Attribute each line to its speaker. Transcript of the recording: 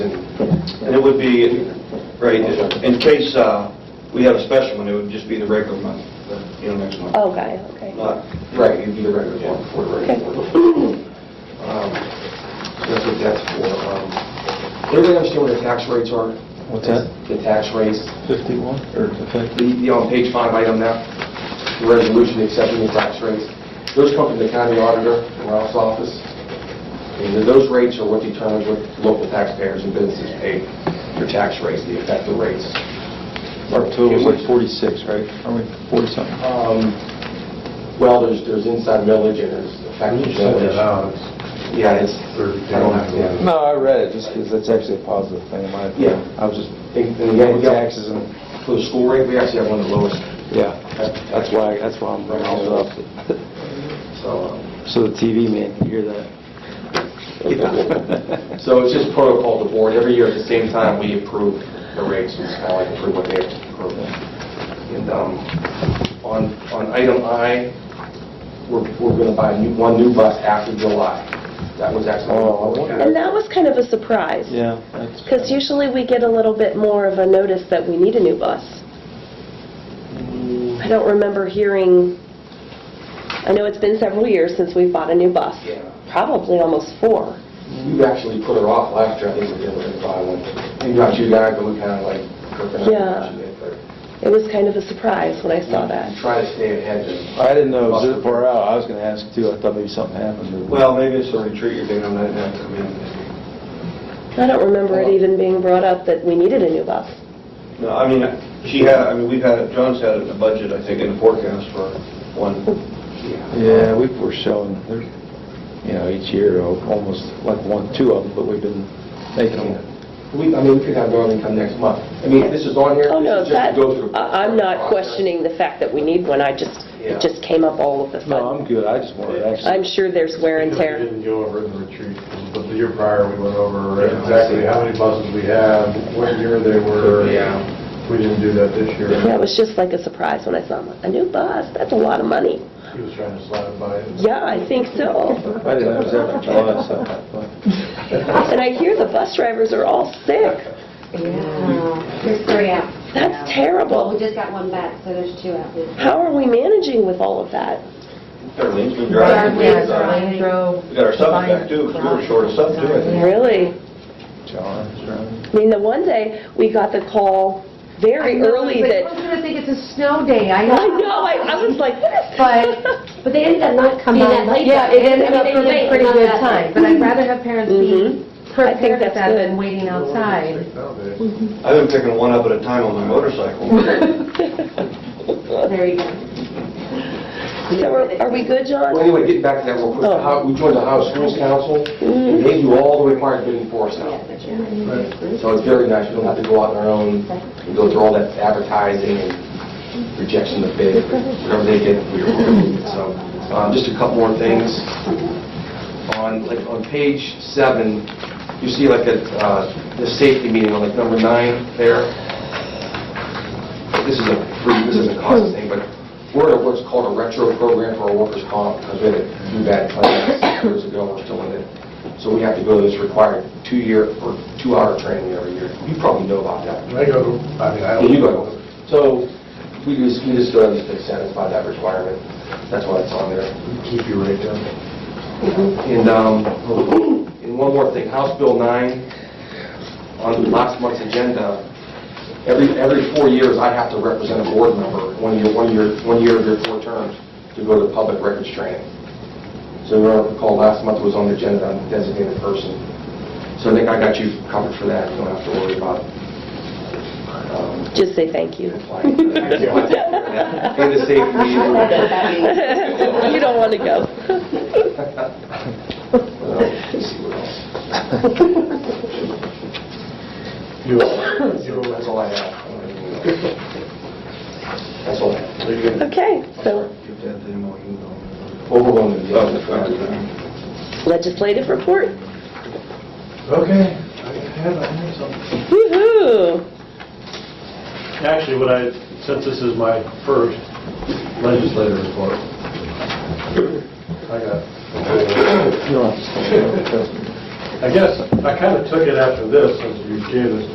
Speaker 1: And it would be, right, in case uh, we had a special one, it would just be the regular month,
Speaker 2: uh,
Speaker 1: you know, next month.
Speaker 3: Oh, got it, okay.
Speaker 1: Not, right, it'd be the regular one for the regular one. Um, so That's what that's for. Um, Everybody understand what the tax rates are?
Speaker 4: What's that?
Speaker 1: The tax rates,
Speaker 4: 51 or
Speaker 1: the, the on page five item now, the resolution accepting the tax rates. Those come from the county auditor in Ralph's office. And then those rates are what determines what local taxpayers and businesses pay for tax rates, the effective rates.
Speaker 4: Our total's like 46, right? Are we 40 something?
Speaker 1: Um, Well, there's, there's inside millage and there's effective millage. Yeah, it's, I don't have, yeah.
Speaker 4: No, I read it just because that's actually a positive thing in my opinion.
Speaker 1: Yeah.
Speaker 4: I was just
Speaker 1: And and again,
Speaker 4: paying
Speaker 1: we got-
Speaker 4: taxes and,
Speaker 1: for the school rate, we actually have one of the lowest,
Speaker 4: yeah, that's why, that's why I'm bringing it up.
Speaker 1: so. um,
Speaker 4: So the TV man can hear that.
Speaker 1: So it's just protocol to board, every year at the same time, we approve the rates, it's kind of like approve what they have to approve. And um, on, on item I, we're, we're going to buy a new- one new bus after July. That was actually.
Speaker 4: Oh, I wonder-
Speaker 3: And that was kind of a surprise.
Speaker 4: Yeah. that's-
Speaker 3: Because usually we get a little bit more of a notice that we need a new bus.
Speaker 1: Mm.
Speaker 3: I don't remember hearing, I know it's been several years since we've bought a new bus.
Speaker 1: Yeah.
Speaker 3: Probably almost four.
Speaker 1: You actually put her off last year, I think we did, we're going to buy one. Maybe not you guys, but we kind of like.
Speaker 3: Yeah. It was kind of a surprise when I saw that.
Speaker 1: Try to stay ahead of.
Speaker 4: I didn't know it was that far out. I was going to ask too. I thought maybe something happened. but-
Speaker 2: Well, maybe it's a retreat you're doing on that, night, I mean,
Speaker 3: I don't remember it even being brought up that we needed a new bus.
Speaker 2: no, I mean, she had, I mean, we've had, it- John's had it in the budget, I think, in the forecast for one.
Speaker 4: Yeah, we were showing, there- you know, each year, al- almost like one, two of them, but we've been making them.
Speaker 1: We, I mean, we could have Darlene come next month. I mean, this is on here.
Speaker 3: Oh,
Speaker 1: this
Speaker 3: no,
Speaker 1: is just to
Speaker 3: that,
Speaker 1: go through-
Speaker 3: I- I'm not
Speaker 1: Process.
Speaker 3: questioning the fact that we need one, I just,
Speaker 1: Yeah.
Speaker 3: it just came up all of a
Speaker 4: No,
Speaker 3: sudden.
Speaker 4: I'm good. I just wanted to actually.
Speaker 3: I'm sure there's wear and
Speaker 5: Because We
Speaker 3: tear.
Speaker 5: didn't go over in the retreat, but the year prior, we went over exactly how many buses we have, what year they were.
Speaker 1: Yeah.
Speaker 5: We didn't do that this year.
Speaker 3: Yeah, it was just like a surprise when I saw, them. a new bus, that's a lot of money.
Speaker 5: He was trying to slide it by.
Speaker 3: Yeah, I think so.
Speaker 4: I didn't know it was after July, so.
Speaker 3: And I hear the bus drivers are all sick.
Speaker 6: Yeah, there's three out.
Speaker 3: That's
Speaker 6: Well, we
Speaker 3: terrible.
Speaker 6: just got one back, so there's two out there.
Speaker 3: How are we managing with all of that?
Speaker 2: Darlene's been driving.
Speaker 6: Darlene's
Speaker 2: We got our- We got our subs back too, 'cause we were short of subs too, I think.
Speaker 3: Really?
Speaker 4: John's running.
Speaker 3: I mean, the one day, we got the call very early
Speaker 6: I
Speaker 3: that,
Speaker 6: was gonna think it's a snow day, I know.
Speaker 3: I know, I I was like, what is?
Speaker 6: But, but they ended up not coming. Yeah, it ended up being a pretty good time, but I'd rather have parents
Speaker 3: Mhm.
Speaker 6: be
Speaker 3: I think
Speaker 6: prepared
Speaker 3: that's
Speaker 6: at that
Speaker 3: good.
Speaker 6: than waiting outside.
Speaker 5: Nowadays,
Speaker 2: I've been picking one up at a time on my motorcycle.
Speaker 6: There you go.
Speaker 3: So are- Are we good, John? Oh,
Speaker 1: Well, anyway, getting back to that real quick, the Ohio- we joined the Ohio Schools Council,
Speaker 3: Mm-hmm.
Speaker 1: and they do all the required bidding for us now. So it's very nice, we don't have to go out on our own, and go through all that advertising and rejection of bid, whatever they get, we approve it. So, um, just a couple more things. On, like, on page seven, you see like a, uh, the safety meeting, on like number nine there. This is a, free- this is a cost thing, but we're at what's called a retro program for our workers' comp, because we had a few bad claims years ago, we're still in it. So we have to go to this required two-year or two-hour training every year. You probably know about that.
Speaker 5: I go, I mean, I
Speaker 1: Yeah,
Speaker 5: don't.
Speaker 1: you go. So we just, we just go ahead and satisfy that requirement. That's why it's on there.
Speaker 5: Keep your rate down.
Speaker 1: And, um, and one more thing, House Bill 9, on last month's agenda, every, every four years, I have to represent a board member, one year, one year, one year of your four terms, to go to public records training. So you remember, recall last month was on the agenda, I'm a designated person. So I think I got you covered for that, you don't have to worry about um,
Speaker 3: Just say thank you.
Speaker 1: applying for that. And the safety meeting.
Speaker 3: You don't want to go.
Speaker 1: Well, let's see what else.
Speaker 5: You, you
Speaker 1: That's
Speaker 5: go.
Speaker 1: all I have. That's all I have.
Speaker 3: Okay, so
Speaker 2: Get that thing while you go.
Speaker 1: Overwhelming.
Speaker 2: Oh, that's right.
Speaker 3: legislative report.
Speaker 5: Okay, I have, I have something.
Speaker 3: Woo-hoo!
Speaker 5: Actually, what I, since this is my first legislative report, I got.
Speaker 4: You don't have to stand up.
Speaker 5: I guess I kind of took it after this, since you gave this